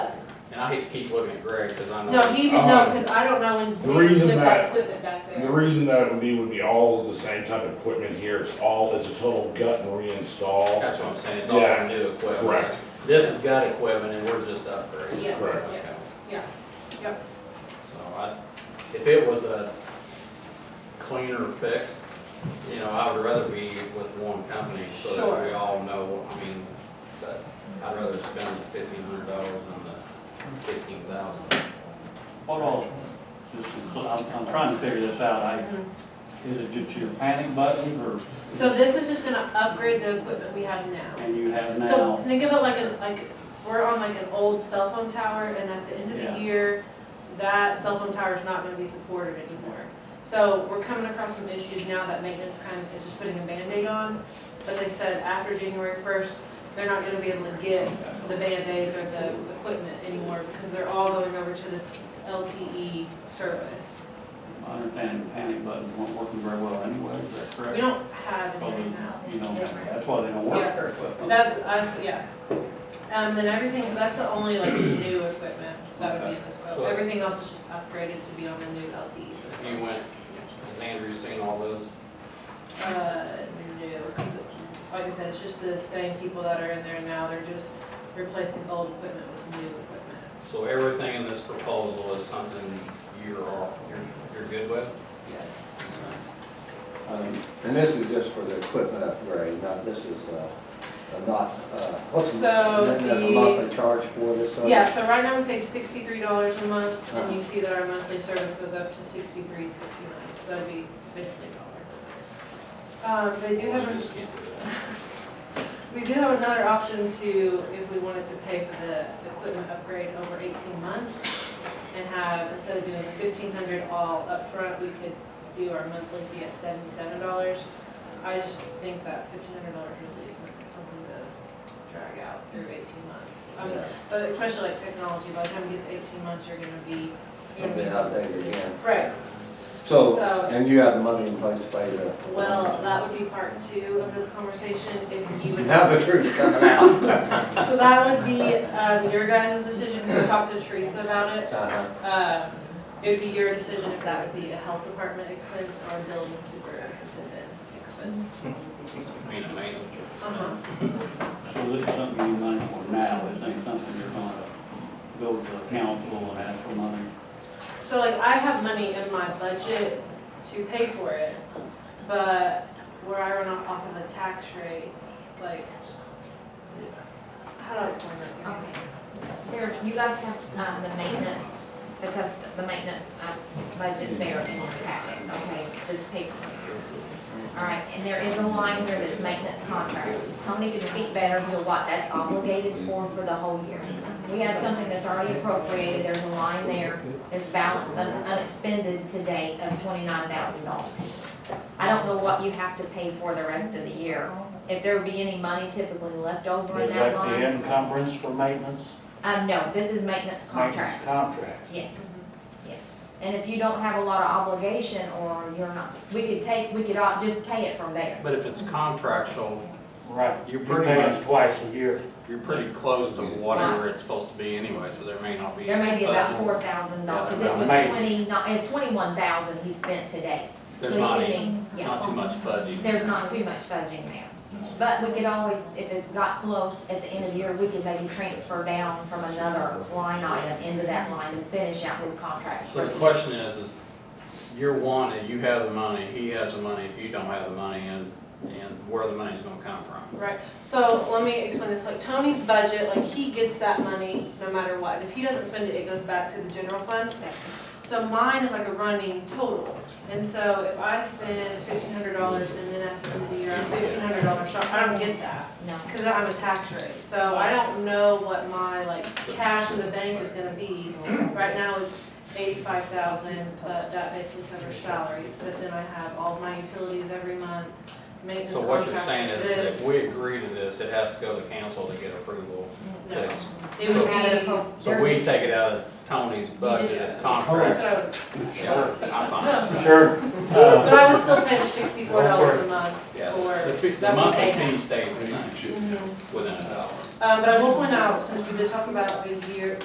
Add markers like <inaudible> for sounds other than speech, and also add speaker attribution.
Speaker 1: And I hate to keep looking at Greg, cause I know.
Speaker 2: No, he, would know
Speaker 3: Uh,
Speaker 2: because I don't know when.
Speaker 3: the
Speaker 2: we
Speaker 3: reason
Speaker 2: took
Speaker 3: that-
Speaker 2: Equipment back
Speaker 3: The
Speaker 2: there.
Speaker 3: reason that it would be, would be all the same type of equipment here, it's all, it's a total gut and reinstall.
Speaker 1: That's what I'm saying, it's all
Speaker 3: Yeah,
Speaker 1: new equipment.
Speaker 3: correct.
Speaker 1: This is gut equipment and we're just upgrading.
Speaker 2: Yes,
Speaker 3: Correct.
Speaker 2: yes, yeah.
Speaker 1: So I, if it was a cleaner fix, you know, I would rather be with one company so that we
Speaker 2: Sure.
Speaker 1: all know, I mean, but I'd rather spend fifteen hundred dollars on the fifteen thousand.
Speaker 4: Hold on, just, to- I'm, I'm trying to figure this out, I,
Speaker 2: Mhm.
Speaker 4: is it just your panic button, or,
Speaker 2: So this is just gonna upgrade the equipment we have now.
Speaker 4: and you have
Speaker 2: So
Speaker 4: now?
Speaker 2: think of it like a, like, we're on like an old cell phone tower and at the end of
Speaker 4: Yeah.
Speaker 2: the year, that cell phone tower is not gonna be supported anymore. So we're coming across some issues now that maintenance kind of is just putting a Band-Aid on. But they said after January first, they're not gonna be able to get the Band-Aids or the equipment anymore because they're all going over to this LTE service.
Speaker 4: I understand the panic button won't work very well anyway, is that
Speaker 2: We
Speaker 4: correct?
Speaker 2: don't have any
Speaker 4: Probably,
Speaker 2: right now.
Speaker 4: you know, that's why they don't work
Speaker 2: Yeah.
Speaker 4: very well.
Speaker 2: That's, that's, yeah. Um, then everything, that's the only like new equipment that would be in this
Speaker 1: So-
Speaker 2: quote. Everything else is just upgraded to be on the new LTE
Speaker 1: If
Speaker 2: system.
Speaker 1: you went, has Andrew seen all those?
Speaker 2: Uh, new, 'cause it- like I said, it's just the same people that are in there now. They're just replacing old equipment with new equipment.
Speaker 1: So everything in this proposal is something you're, all- you're, you're good with?
Speaker 2: Yes.
Speaker 4: Um,
Speaker 5: And this is just for the equipment upgrade, not, this is, uh, uh, not, uh, what's the,
Speaker 2: So
Speaker 5: then there's a
Speaker 2: the-
Speaker 5: monthly charge for this? uh,
Speaker 2: Yeah, so right now we pay sixty-three dollars a month,
Speaker 1: Uh-huh.
Speaker 2: and you see that our monthly service goes up to sixty-three, sixty-nine, so that'd be basically a dollar. Um, they do have,
Speaker 1: We
Speaker 2: a-
Speaker 1: just can't do that.
Speaker 2: we do have another option to, if we wanted to pay for the equipment upgrade over eighteen months, and have, instead of doing the fifteen hundred all upfront, we could do our monthly fee at seventy-seven dollars. I just think that fifteen hundred dollars really isn't something to drag out through eighteen months. I mean, but especially like technology, by the time you get to eighteen months, you're gonna be, you're
Speaker 5: It'll
Speaker 2: gonna
Speaker 5: be
Speaker 2: be.
Speaker 5: updated again.
Speaker 2: Right,
Speaker 5: So,
Speaker 2: So-
Speaker 5: and you have the money in place to pay the.
Speaker 2: well, that would be part two of this conversation if you would.
Speaker 5: <laughs> Now the truth's coming out.
Speaker 2: So that would be, um, your guys' decision, because we talked to Teresa about it.
Speaker 5: Uh-huh.
Speaker 2: Um, it would be your decision if that would be a health department expense or a building superintendent expense.
Speaker 1: I mean, a maintenance
Speaker 2: Uh-huh.
Speaker 1: expense.
Speaker 4: So this is something you need money for now, this ain't something you're gonna go to the council and ask for money.
Speaker 2: So like, I have money in my budget to pay for it, but where I run off of a tax rate, like, how do I explain that? to you?
Speaker 6: Okay. There, you guys have, um, the maintenance, the cust, the maintenance, uh, budget there in your packet, okay, this paper. All right, and there is a line here that's maintenance contracts. Tony could speak better to what that's obligated for for the whole year. We have something that's already appropriated, there's a line there, there's balance un- unexpended to date of twenty-nine thousand dollars. I don't know what you have to pay for the rest of the year. If there be any money typically left over in
Speaker 7: Is
Speaker 6: that
Speaker 7: that
Speaker 6: line.
Speaker 7: the encumbrance for maintenance?
Speaker 6: Um, no, this is maintenance
Speaker 7: Maintenance
Speaker 6: contracts.
Speaker 7: Contracts.
Speaker 6: Yes, yes. And if you don't have a lot of obligation or you're not, we could take, we could all just pay it from there.
Speaker 1: But if it's contractual,
Speaker 7: Right.
Speaker 1: You're
Speaker 7: You
Speaker 1: pretty
Speaker 7: pay
Speaker 1: much-
Speaker 7: us Twice a year.
Speaker 1: You're pretty close to whatever it's supposed to be anyway, so there may not be.
Speaker 6: There may be about
Speaker 1: budget.
Speaker 6: four thousand dollars,
Speaker 1: Yeah,
Speaker 6: it was
Speaker 7: maybe.
Speaker 6: twenty, not, it's twenty-one thousand he spent today.
Speaker 1: There's
Speaker 6: So he
Speaker 1: not
Speaker 6: could
Speaker 1: any-
Speaker 6: be- yeah.
Speaker 1: Not too much fudging.
Speaker 6: There's not too much fudging there. But we could always, if it got close at the end of the year, we could maybe transfer down from another line item into that line and finish out his contract
Speaker 1: So
Speaker 6: for
Speaker 1: the
Speaker 6: the year.
Speaker 1: question is, is you're wanted, you have the money, he has the money, if you don't have the money, and, and where the money's gonna come from.
Speaker 2: Right, so let me explain this, like Tony's budget, like he gets that money no matter what, if he doesn't spend it, it goes back to the general fund. So mine is like a running total, and so if I spend fifteen hundred dollars and then at the end of the year, I'm fifteen hundred dollars short, I don't get that,
Speaker 6: No,
Speaker 2: cause I'm a tax rate, so I don't know what my like cash in the bank is gonna be. Right now it's eighty-five thousand, but that basically covers salaries, but then I have all of my utilities every month, maintenance
Speaker 1: So what you're saying
Speaker 2: contract,
Speaker 1: is, that
Speaker 2: this.
Speaker 1: if we agree to this, it has to go to council to get approval.
Speaker 2: No.
Speaker 1: to-
Speaker 2: It would
Speaker 6: Add a
Speaker 2: be.
Speaker 6: pro-
Speaker 1: So
Speaker 6: there's-
Speaker 1: we take it out of Tony's budget, if contract,
Speaker 2: So-
Speaker 1: yeah, I'm fine. with that.
Speaker 7: Sure.
Speaker 2: But I would still pay the sixty-four dollars a month
Speaker 1: Yeah,
Speaker 2: for.
Speaker 1: the fee- the
Speaker 2: that would
Speaker 1: monthly
Speaker 2: pay
Speaker 1: fee
Speaker 2: half.
Speaker 1: stays the same,
Speaker 2: Mhm.
Speaker 1: within a dollar.
Speaker 2: Um, but I will point out, since we did talk about the year,